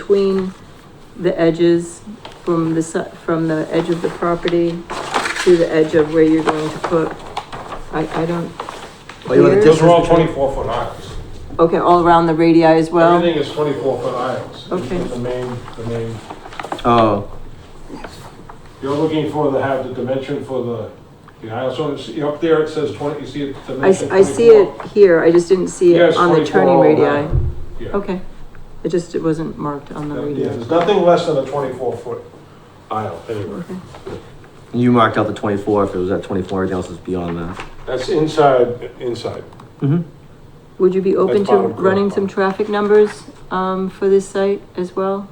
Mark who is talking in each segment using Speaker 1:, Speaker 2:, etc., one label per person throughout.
Speaker 1: between the edges from the, si- from the edge of the property to the edge of where you're going to put, I, I don't.
Speaker 2: Well, Oh, you wanna
Speaker 1: Here's-
Speaker 2: This
Speaker 3: Those are all
Speaker 2: is-
Speaker 3: twenty-four foot aisles.
Speaker 1: Okay, all around the radii as well?
Speaker 3: Everything is twenty-four foot aisles.
Speaker 1: Okay.
Speaker 3: The main, the main,
Speaker 2: Oh,
Speaker 3: you're looking for the, have the dimension for the, the aisle, so it's, up there it says twenty, you see it,
Speaker 1: I, s-
Speaker 3: dimension
Speaker 1: I see it here, I just didn't see
Speaker 3: Yeah,
Speaker 1: it
Speaker 3: it's
Speaker 1: on the
Speaker 3: 24
Speaker 1: turning
Speaker 3: all
Speaker 1: radii.
Speaker 3: around. Yeah.
Speaker 1: Okay, it just, it wasn't marked on the
Speaker 3: Yeah,
Speaker 1: radii.
Speaker 3: there's nothing less than a twenty-four foot aisle anywhere.
Speaker 1: Okay.
Speaker 2: you marked out the twenty-four, if it was at twenty-four, everything else is beyond that.
Speaker 3: That's inside, inside.
Speaker 2: Mm-hmm.
Speaker 1: Would you be open
Speaker 3: That's
Speaker 1: to
Speaker 3: bottom corner.
Speaker 1: running some traffic numbers, um, for this site as well?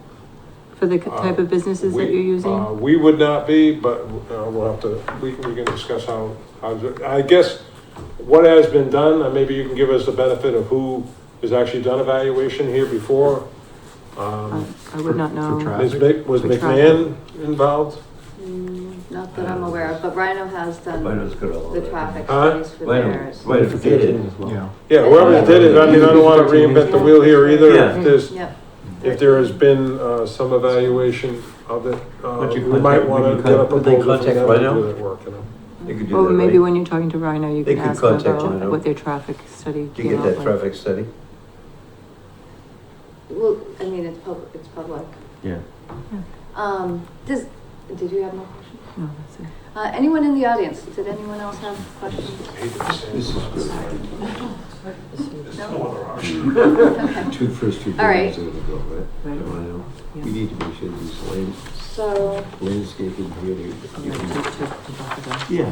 Speaker 1: For the c- type of businesses that
Speaker 3: Uh, We-
Speaker 1: you're using?
Speaker 3: uh, We would not be, but uh, we'll have to, we can, we can discuss how, how, I guess what has been done, and maybe you can give us the benefit of who has actually done evaluation here before.
Speaker 1: I
Speaker 3: Um,
Speaker 1: I would not know.
Speaker 4: Uh,
Speaker 3: Ms. Mc- Was
Speaker 1: For
Speaker 3: McMahon involved?
Speaker 4: Mm, Not that I'm aware of, but Rhino has done
Speaker 5: Rhino's good all over.
Speaker 4: the traffic
Speaker 3: Huh?
Speaker 4: studies for
Speaker 5: Rhino,
Speaker 4: theirs.
Speaker 5: Rhino did it.
Speaker 2: Yeah.
Speaker 3: Yeah, whoever did it, I mean, I don't wanna reinvent the wheel here either,
Speaker 5: Yeah.
Speaker 3: if there's,
Speaker 4: Yep.
Speaker 3: if there has been, uh, some evaluation of it, uh,
Speaker 5: Would you
Speaker 3: we might
Speaker 5: contact-
Speaker 3: wanna
Speaker 5: would you
Speaker 3: get a
Speaker 5: con- would they
Speaker 3: proposal for
Speaker 5: contact
Speaker 3: them to
Speaker 5: Rhino?
Speaker 3: do that work, you know?
Speaker 5: They could do
Speaker 1: Well,
Speaker 5: that,
Speaker 1: maybe
Speaker 5: right?
Speaker 1: when you're talking to Rhino, you
Speaker 5: They
Speaker 1: can
Speaker 5: could
Speaker 1: ask them
Speaker 5: contact
Speaker 1: about
Speaker 5: Rhino.
Speaker 1: what their traffic study
Speaker 5: Did you
Speaker 1: came
Speaker 5: get
Speaker 1: up
Speaker 5: that
Speaker 1: with.
Speaker 5: traffic study?
Speaker 4: Well, I mean, it's public, it's public.
Speaker 2: Yeah.
Speaker 4: Um, does, did you have more questions?
Speaker 1: No, Oh, that's it.
Speaker 4: Uh, anyone in the audience? Did anyone else have questions?
Speaker 5: This is good.
Speaker 4: Okay.
Speaker 5: Two first two
Speaker 4: All right.
Speaker 5: buildings are gonna go, right?
Speaker 1: Right.
Speaker 5: Rhino.
Speaker 1: Yeah.
Speaker 5: We need to make sure these land-
Speaker 4: So,
Speaker 5: landscaping really.
Speaker 1: Yeah, to- to- to both of them.
Speaker 5: Yeah.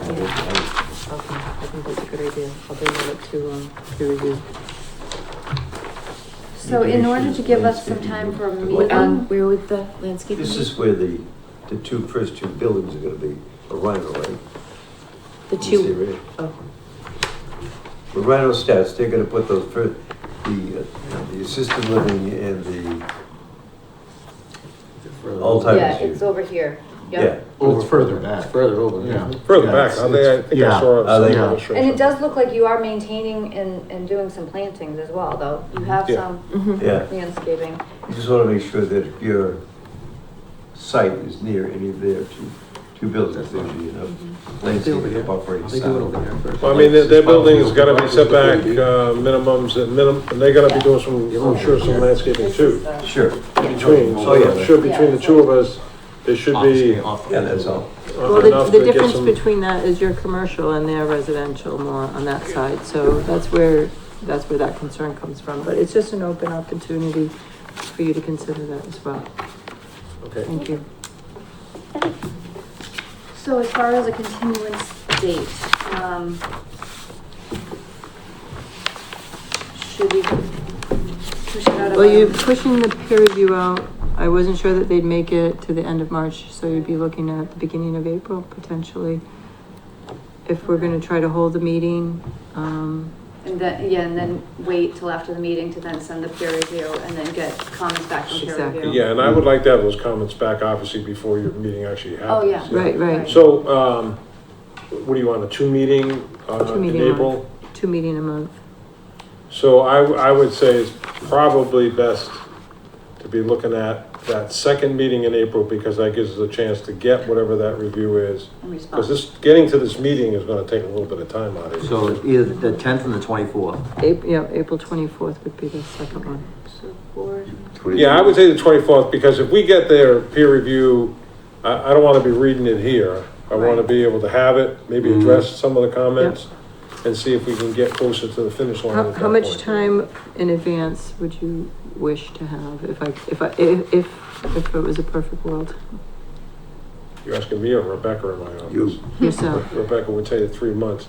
Speaker 1: Okay, I think that's a good idea. I'll bring that up to, um, peer review.
Speaker 4: so in order to give us some time for a
Speaker 5: What,
Speaker 4: meeting,
Speaker 6: um, where would the landscape?
Speaker 5: This is where the, the two first two buildings are gonna be, a Rhino, right?
Speaker 6: The
Speaker 5: This
Speaker 6: two,
Speaker 5: area.
Speaker 6: oh,
Speaker 5: The Rhino stats, they're gonna put those first, the, uh, the assisted living and the
Speaker 4: yeah,
Speaker 5: Alzheimer's.
Speaker 4: it's
Speaker 5: unit.
Speaker 4: over here.
Speaker 5: Yeah,
Speaker 4: Yep.
Speaker 7: Well, it's further back.
Speaker 8: Further over, yeah.
Speaker 3: Further
Speaker 7: Yeah,
Speaker 3: back,
Speaker 7: it's-
Speaker 3: I think, I
Speaker 7: it's-
Speaker 3: think I
Speaker 7: yeah.
Speaker 3: saw
Speaker 5: Uh,
Speaker 3: some
Speaker 5: they-
Speaker 3: illustration.
Speaker 4: And it does look like you are maintaining and, and doing some plantings as well, though. You have
Speaker 3: Yeah.
Speaker 1: Mm-hmm.
Speaker 4: some
Speaker 5: yeah.
Speaker 4: landscaping.
Speaker 5: You just want to make sure that if your site is near any of their two, two buildings, there should be
Speaker 4: Mm-hmm.
Speaker 5: enough
Speaker 8: Over
Speaker 5: landscaping
Speaker 8: here.
Speaker 5: to operate
Speaker 8: They do it over
Speaker 5: sound.
Speaker 8: there first.
Speaker 3: Well, I mean, their, their building's gotta be
Speaker 8: It's
Speaker 3: set back,
Speaker 8: probably-
Speaker 3: uh, minimums at minimum, and they're gonna be doing some, I'm sure some landscaping
Speaker 4: This
Speaker 3: too,
Speaker 4: is, uh,
Speaker 5: Sure,
Speaker 3: between. So I'm sure between the two of us, there should be uh,
Speaker 5: yeah, that's all.
Speaker 1: Well,
Speaker 3: enough
Speaker 1: the, the
Speaker 3: to get
Speaker 1: difference
Speaker 3: some.
Speaker 1: between that is your commercial and their residential more on that side, so that's where, that's where that concern comes from. But it's just an open opportunity for you to consider that as well.
Speaker 3: Okay.
Speaker 1: Thank you.
Speaker 4: So as far as a continuance date, um, should we push it out?
Speaker 1: Well, you're
Speaker 4: about-
Speaker 1: pushing the peer review out. I wasn't sure that they'd make it to the end of March, so you'd be looking at the beginning of April potentially. If we're gonna try to hold the meeting, um,
Speaker 4: And then, yeah, and then wait till after the meeting to then send the peer review and then get comments back from peer
Speaker 1: Exactly.
Speaker 4: review.
Speaker 3: Yeah, and I would like to have those comments back, obviously, before your meeting actually
Speaker 4: Oh,
Speaker 3: happens.
Speaker 4: yeah.
Speaker 1: Right, right.
Speaker 3: So, um, what do you want, a two meeting, uh,
Speaker 1: Two
Speaker 3: in
Speaker 1: meeting a
Speaker 3: April?
Speaker 1: two meeting a month.
Speaker 3: So I, w- I would say it's probably best to be looking at that second meeting in April, because that gives us a chance to get whatever that review is.
Speaker 4: In
Speaker 3: Because
Speaker 4: response.
Speaker 3: this, getting to this meeting is gonna take a little bit of time out of you.
Speaker 2: So it's either the tenth and the twenty-fourth.
Speaker 1: April, yeah, April twenty-fourth would be the second one.
Speaker 4: So four,
Speaker 3: Yeah, I would say the twenty-fourth, because if we get their peer review, I, I don't wanna be reading it here. I wanna
Speaker 4: Right.
Speaker 3: be able to have it, maybe
Speaker 2: Mhm.
Speaker 3: address some of the comments, and see if we can get closer to the finish line.
Speaker 1: How,
Speaker 3: at
Speaker 1: how
Speaker 3: that
Speaker 1: much
Speaker 3: point.
Speaker 1: time in advance would you wish to have if I, if I, if, if, if it was a perfect world?
Speaker 3: You're asking me or Rebecca in my office?
Speaker 5: You,
Speaker 1: Yourself,
Speaker 3: Rebecca would tell you three months.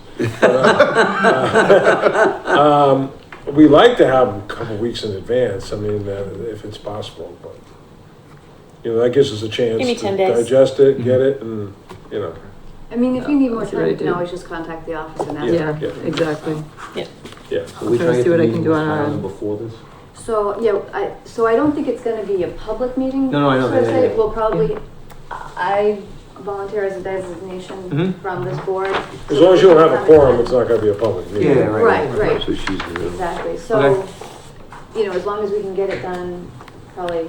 Speaker 3: Um, We like to have them a couple weeks in advance, I mean, uh, if it's possible, but, you know, that gives us a chance.
Speaker 6: Give me
Speaker 3: to
Speaker 6: 10 days.
Speaker 3: Digest it, get it, and, you know,
Speaker 4: I mean, if you need more
Speaker 1: That's what I
Speaker 4: time, you can
Speaker 1: do.
Speaker 4: always just contact the office and ask.
Speaker 1: yeah,
Speaker 3: yeah.
Speaker 1: exactly.
Speaker 3: yeah.
Speaker 2: Are
Speaker 1: Trying to see what
Speaker 2: we trying to get the
Speaker 1: I can
Speaker 2: meeting
Speaker 1: do on our
Speaker 2: filed
Speaker 1: end.
Speaker 2: before this?
Speaker 4: So, yeah, I, so I don't think it's gonna be a public meeting.
Speaker 2: No, no, I know,
Speaker 4: So I'd
Speaker 2: yeah,
Speaker 4: say
Speaker 2: yeah. Mm-hmm.
Speaker 4: we'll probably, I volunteer as a designation
Speaker 2: Mhm.
Speaker 4: from this board.
Speaker 3: As long as you don't have a quorum, it's not gonna be a public meeting.
Speaker 2: Yeah,
Speaker 4: Right, right,
Speaker 5: so she's, around.
Speaker 4: exactly. So,
Speaker 2: Okay.
Speaker 4: you know, as long as we can get it done, probably